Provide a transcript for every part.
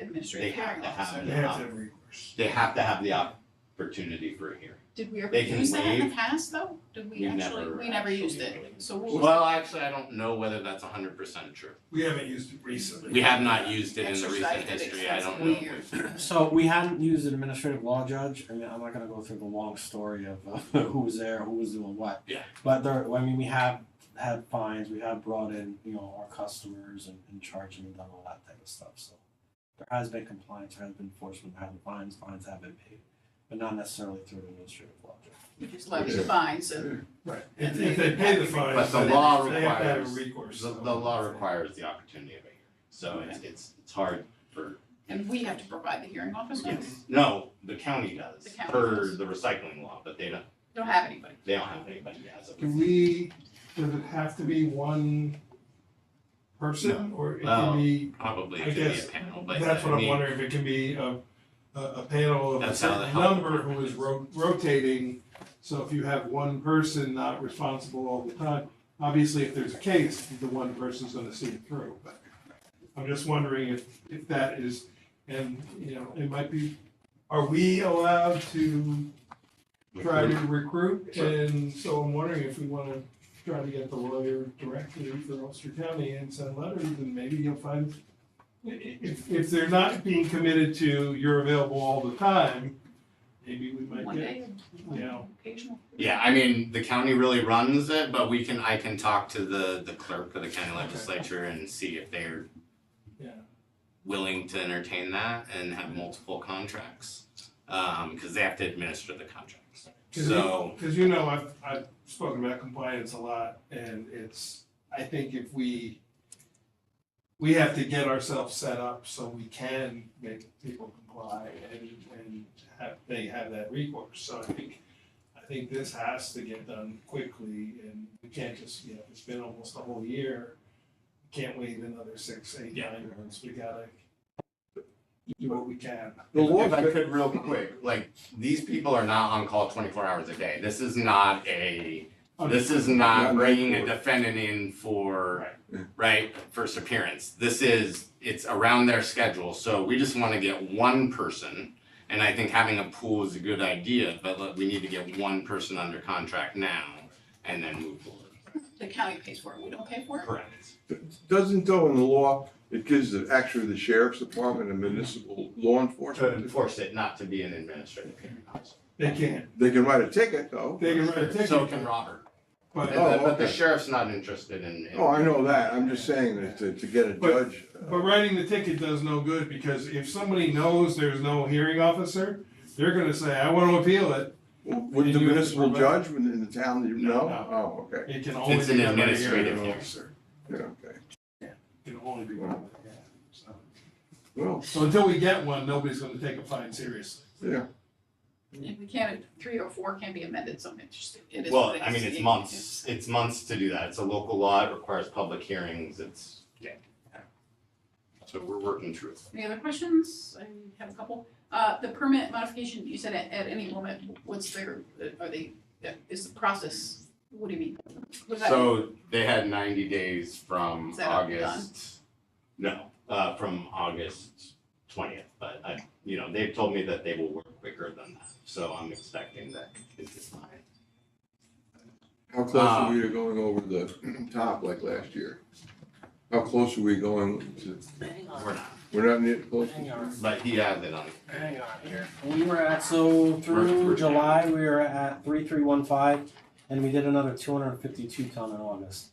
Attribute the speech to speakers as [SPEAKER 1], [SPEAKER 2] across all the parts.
[SPEAKER 1] administrative
[SPEAKER 2] They have
[SPEAKER 1] hearing
[SPEAKER 2] to have
[SPEAKER 1] officer.
[SPEAKER 2] it.
[SPEAKER 3] They have to have recourse.
[SPEAKER 2] They have to have the opportunity for a hearing.
[SPEAKER 1] Did we ever
[SPEAKER 2] They can
[SPEAKER 1] use that in the
[SPEAKER 2] waive.
[SPEAKER 1] past though? Did we
[SPEAKER 2] We
[SPEAKER 1] actually,
[SPEAKER 2] never
[SPEAKER 1] we never used
[SPEAKER 2] actually
[SPEAKER 1] it,
[SPEAKER 2] really
[SPEAKER 1] so what was
[SPEAKER 2] Well, actually, I don't know whether that's hundred percent true.
[SPEAKER 3] We haven't used it recently.
[SPEAKER 2] We have not used it in the recent
[SPEAKER 1] Exercised it
[SPEAKER 2] history, I don't know.
[SPEAKER 1] extensively
[SPEAKER 2] if-
[SPEAKER 4] So we hadn't used an administrative law judge. I mean, I'm not gonna go through the long story of uh, who was there, who was doing what.
[SPEAKER 2] Yeah.
[SPEAKER 4] But there, I mean, we have had fines. We have brought in, you know, our customers and, and charged them and done all that type of stuff. So there has been compliance, there has been enforcement, there have been fines. Fines have been paid, but not necessarily through an administrative law judge.
[SPEAKER 1] we just levy the fines and
[SPEAKER 3] Right, if, if they pay the fine,
[SPEAKER 2] But the
[SPEAKER 3] then
[SPEAKER 2] law
[SPEAKER 3] they have to have a
[SPEAKER 2] requires-
[SPEAKER 3] recourse.
[SPEAKER 2] The, the law requires the opportunity of a hearing, so it's, it's, it's hard for,
[SPEAKER 1] and we have to provide the hearing officer?
[SPEAKER 2] yes, no, the county does,
[SPEAKER 1] The county
[SPEAKER 2] per
[SPEAKER 1] does.
[SPEAKER 2] the recycling law, but they don't,
[SPEAKER 1] Don't have anybody.
[SPEAKER 2] they don't have anybody as of.
[SPEAKER 3] Can we, does it have to be one person, or it
[SPEAKER 2] Well,
[SPEAKER 3] can be,
[SPEAKER 2] Probably
[SPEAKER 3] I
[SPEAKER 2] could be a
[SPEAKER 3] guess
[SPEAKER 2] panel, but
[SPEAKER 3] that's what
[SPEAKER 2] I
[SPEAKER 3] I'm
[SPEAKER 2] mean,
[SPEAKER 3] wondering, if it can be a, a, a panel of a
[SPEAKER 2] That's how the
[SPEAKER 3] certain
[SPEAKER 2] health
[SPEAKER 3] number who
[SPEAKER 2] department
[SPEAKER 3] is
[SPEAKER 2] is.
[SPEAKER 3] ro- rotating, so if you have one person not responsible all the time, obviously if there's a case, the one person's gonna see it through, but I'm just wondering if, if that is, and, you know, it might be, are we allowed to try to recruit,
[SPEAKER 2] Sure.
[SPEAKER 3] and so I'm wondering if we wanna try to get the lawyer directly for Ulster County and send letters, and maybe you'll find i- i- if, if they're not being committed to, you're available all the time, maybe we might
[SPEAKER 1] One
[SPEAKER 3] get,
[SPEAKER 1] day,
[SPEAKER 3] you know,
[SPEAKER 1] occasional.
[SPEAKER 2] Yeah, I mean, the county really runs it, but we can, I can talk to the, the clerk of the county legislature and see if they're
[SPEAKER 3] Yeah.
[SPEAKER 2] willing to entertain that and have multiple contracts, um, cause they have to administer the contracts.
[SPEAKER 3] Cause
[SPEAKER 2] So-
[SPEAKER 3] you, cause you know, I've, I've spoken about compliance a lot, and it's, I think if we, we have to get ourselves set up so we can make people comply and, and have, they have that recourse, so I think, I think this has to get done quickly, and we can't just, you know, it's been almost a whole year, can't wait another six, eight,
[SPEAKER 2] Yeah.
[SPEAKER 3] nine months, we gotta do what we can.
[SPEAKER 2] If I could real quick, like, these people are not on call twenty-four hours a day, this is not a,
[SPEAKER 3] Oh,
[SPEAKER 2] this is
[SPEAKER 5] Yeah,
[SPEAKER 2] not
[SPEAKER 5] night
[SPEAKER 2] bringing a
[SPEAKER 5] court.
[SPEAKER 2] defendant in for,
[SPEAKER 5] Yeah.
[SPEAKER 2] right, first appearance. This is, it's around their schedule, so we just wanna get one person, and I think having a pool is a good idea, but look, we need to get one person under contract now, and then move forward.
[SPEAKER 1] The county pays for it, we don't pay for it?
[SPEAKER 2] Correct.
[SPEAKER 5] Doesn't though in the law, it gives the, actually the sheriff's department and municipal law
[SPEAKER 2] To
[SPEAKER 5] enforcement,
[SPEAKER 2] enforce it not to be an administrative hearing officer.
[SPEAKER 3] They can,
[SPEAKER 5] they can write a ticket though.
[SPEAKER 3] they can write a ticket. Oh,
[SPEAKER 2] So can Robert,
[SPEAKER 3] But
[SPEAKER 2] but the, but the
[SPEAKER 5] okay.
[SPEAKER 2] sheriff's not interested in. in-
[SPEAKER 5] Oh, I know that, I'm just saying that to, to get a
[SPEAKER 3] But-
[SPEAKER 5] judge. uh,
[SPEAKER 3] But writing the ticket does no good, because if somebody knows there's no hearing officer, they're gonna say, I wanna appeal it.
[SPEAKER 5] Would
[SPEAKER 3] you
[SPEAKER 5] the
[SPEAKER 3] have to
[SPEAKER 5] municipal
[SPEAKER 3] provide-
[SPEAKER 5] judge in the town, you
[SPEAKER 3] No,
[SPEAKER 5] know?
[SPEAKER 3] no.
[SPEAKER 5] Oh, okay,
[SPEAKER 3] It can only
[SPEAKER 2] It's an
[SPEAKER 3] be done by a
[SPEAKER 2] administrative
[SPEAKER 3] hearing
[SPEAKER 2] hearing.
[SPEAKER 3] officer.
[SPEAKER 5] yeah, okay.
[SPEAKER 3] It can only be done by, yeah, so.
[SPEAKER 5] Well,
[SPEAKER 3] So until we get one, nobody's gonna take a fine seriously.
[SPEAKER 5] yeah,
[SPEAKER 1] And we can't, three or four can be amended, so it's, it is.
[SPEAKER 2] Well,
[SPEAKER 1] what it
[SPEAKER 2] I mean,
[SPEAKER 1] is.
[SPEAKER 2] it's
[SPEAKER 1] It-
[SPEAKER 2] months, it's months to do that, it's a local law, it requires public hearings, it's, yeah. So we're working through it.
[SPEAKER 1] Any other questions? I have a couple. Uh, the permit modification, you said at, at any moment, what's their, uh, are they, is the process, what do you mean? What does that mean?
[SPEAKER 2] So they had ninety days from
[SPEAKER 1] Is that all done?
[SPEAKER 2] August, no, uh, from August twentieth, but I, you know, they've told me that they will work quicker than that, so I'm expecting that it's fine.
[SPEAKER 5] how close are
[SPEAKER 2] Um,
[SPEAKER 5] we to going over the top like last year? How close are we going to,
[SPEAKER 2] We're not,
[SPEAKER 5] we're not near close?
[SPEAKER 4] Hang on.
[SPEAKER 2] but he has it on,
[SPEAKER 4] Hang on here. We were at, so
[SPEAKER 2] We're- we're-
[SPEAKER 4] through July, we were at three, three, one, five, and we did another two hundred and fifty-two ton in August.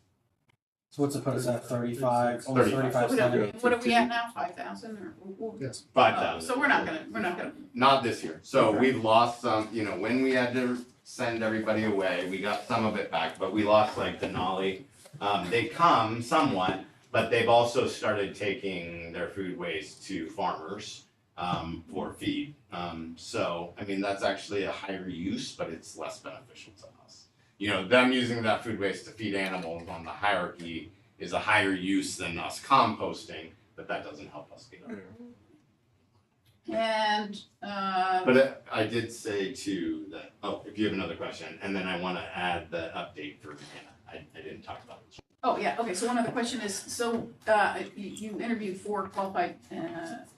[SPEAKER 4] So what's it put us at, thirty-five, almost
[SPEAKER 2] Thirty-five.
[SPEAKER 4] thirty-five
[SPEAKER 1] So what
[SPEAKER 4] ton?
[SPEAKER 1] are, what are we at now, five thousand or? or-
[SPEAKER 2] five
[SPEAKER 1] uh,
[SPEAKER 2] thousand.
[SPEAKER 1] So we're not gonna, we're not gonna,
[SPEAKER 2] Not this year. So
[SPEAKER 4] Okay.
[SPEAKER 2] we've lost some, you know, when we had to send everybody away, we got some of it back, but we lost like Denali. Um, they come somewhat, but they've also started taking their food waste to farmers um, for feed. Um, so, I mean, that's actually a higher use, but it's less beneficial to us. You know, them using that food waste to feed animals on the hierarchy is a higher use than us composting, but that doesn't help us get our
[SPEAKER 5] Yeah.
[SPEAKER 1] and, uh,
[SPEAKER 2] But I I did say too that, oh, if you have another question, and then I wanna add the update for Hannah, I, I didn't talk about it.
[SPEAKER 1] Oh, yeah, okay, so one other question is, so, uh, you, you interviewed four qualified, uh,